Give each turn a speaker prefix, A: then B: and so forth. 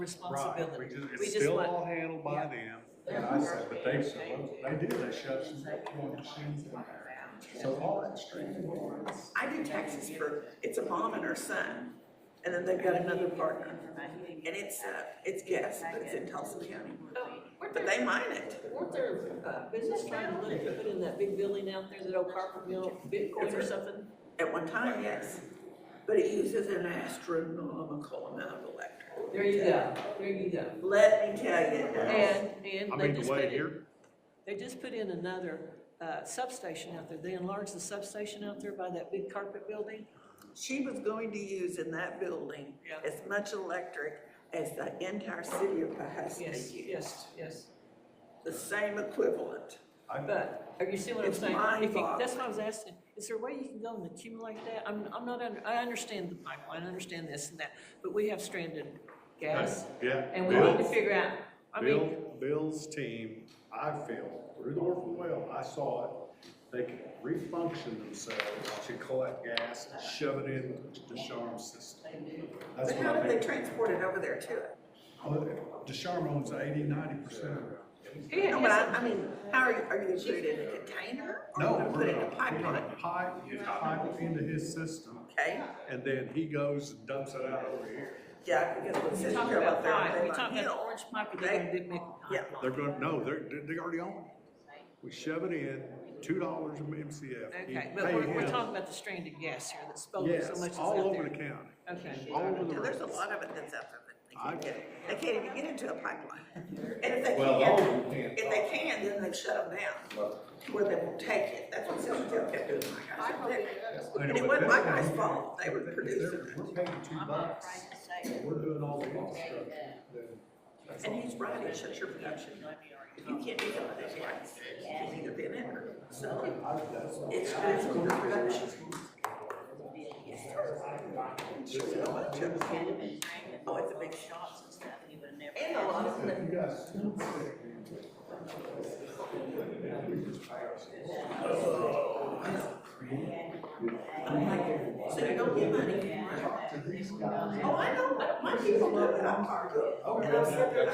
A: Right, we
B: responsibility.
A: just,
B: We
A: it's
B: just
A: still
B: want-
A: all handled by them.
C: Yeah, I said,
A: But they, they do, they shut some, one machine. So all that street.
C: I do taxes for, it's a mom and her son, and then they've got another partner. And it's, uh, it's gas, but it's in Tulsa County,
D: Oh, Weren't
C: but
D: there,
C: they mine it.
D: weren't there, uh, business trying to look to put in that big building out there, that old carpet mill, Bitcoin or something?
C: At one time, yes, but it uses an astronomical amount of electric.
D: There you go, there you go.
C: Let me tell you, it does.
D: And,
A: I
D: and they
A: mean,
D: just
A: the
D: put
A: way
D: in,
A: here,
D: they just put in another, uh, substation out there. They enlarged the substation out there by that big carpet building.
C: she was going to use in that building as much electric as the entire city of Pahuska
D: Yes,
C: used,
D: yes, yes.
C: the same equivalent.
D: But, are you seeing what I'm
C: It's
D: saying? If you- That's
C: mind-boggling.
D: what I was asking, is there a way you can go and accumulate that? I'm, I'm not, under- I understand the pipeline, I understand this and that, but we have stranded gas,
A: yeah.
D: and we need to
A: Bill-
D: figure out, I mean,
A: Bill, Bill's team, I feel, through the orphan well, I saw it, they can refunction themselves to collect gas and shove it in the Sharm system. That's
C: But
A: what
C: how
A: I
C: did they
A: think.
C: transport it over there to it?
A: Oh, Desharm owns eighty, ninety percent of it.
D: he
C: No, but I,
D: has,
C: I mean, how are you, are you gonna put it in a container? Or
A: No,
C: are you gonna
A: we're
C: put it in a
A: gonna- we're gonna
C: pipeline?
A: Pipe, pipe into his system,
C: Okay,
A: and then he goes and dumps it out over here.
C: yeah, because it
D: we
C: says
D: talk
C: here about
D: about
C: their
D: pipe, we
C: Avon
D: talk about the
C: Hill.
D: orange pipe,
C: They-
D: they're gonna do- make.
C: yeah.
A: They're gonna, no, they're, they already own it. We shove it in, two dollars a MCF. You
D: Okay, but
A: pay
D: we're, we're
A: him.
D: talking about the stranded gas here that's spoken so much
A: Yes,
D: that's
A: all
D: out
A: over the
D: there.
A: county.
D: Okay,
A: All over the
C: And there's a
A: roads.
C: lot of it that's out there that they
A: I-
C: can't get it. They can't even get into a pipeline. And if they
E: Well, all of
C: can,
E: them can't.
C: if they can, then they shut them down, to where they won't take it. That's what Silvertail kept doing, my guys up there. And it wasn't my guy's fault, they were producing
A: We're paying two bucks, and we're doing all the infrastructure.
C: it. And he's right, it shuts your production. If you can't do something that's right, you can either be in it or sell it. It's, it's your production. Oh, it's a big shot. And a lot of them. I'm like, so you don't get money. Oh, I know, my people know that I'm hard. And I'll sit there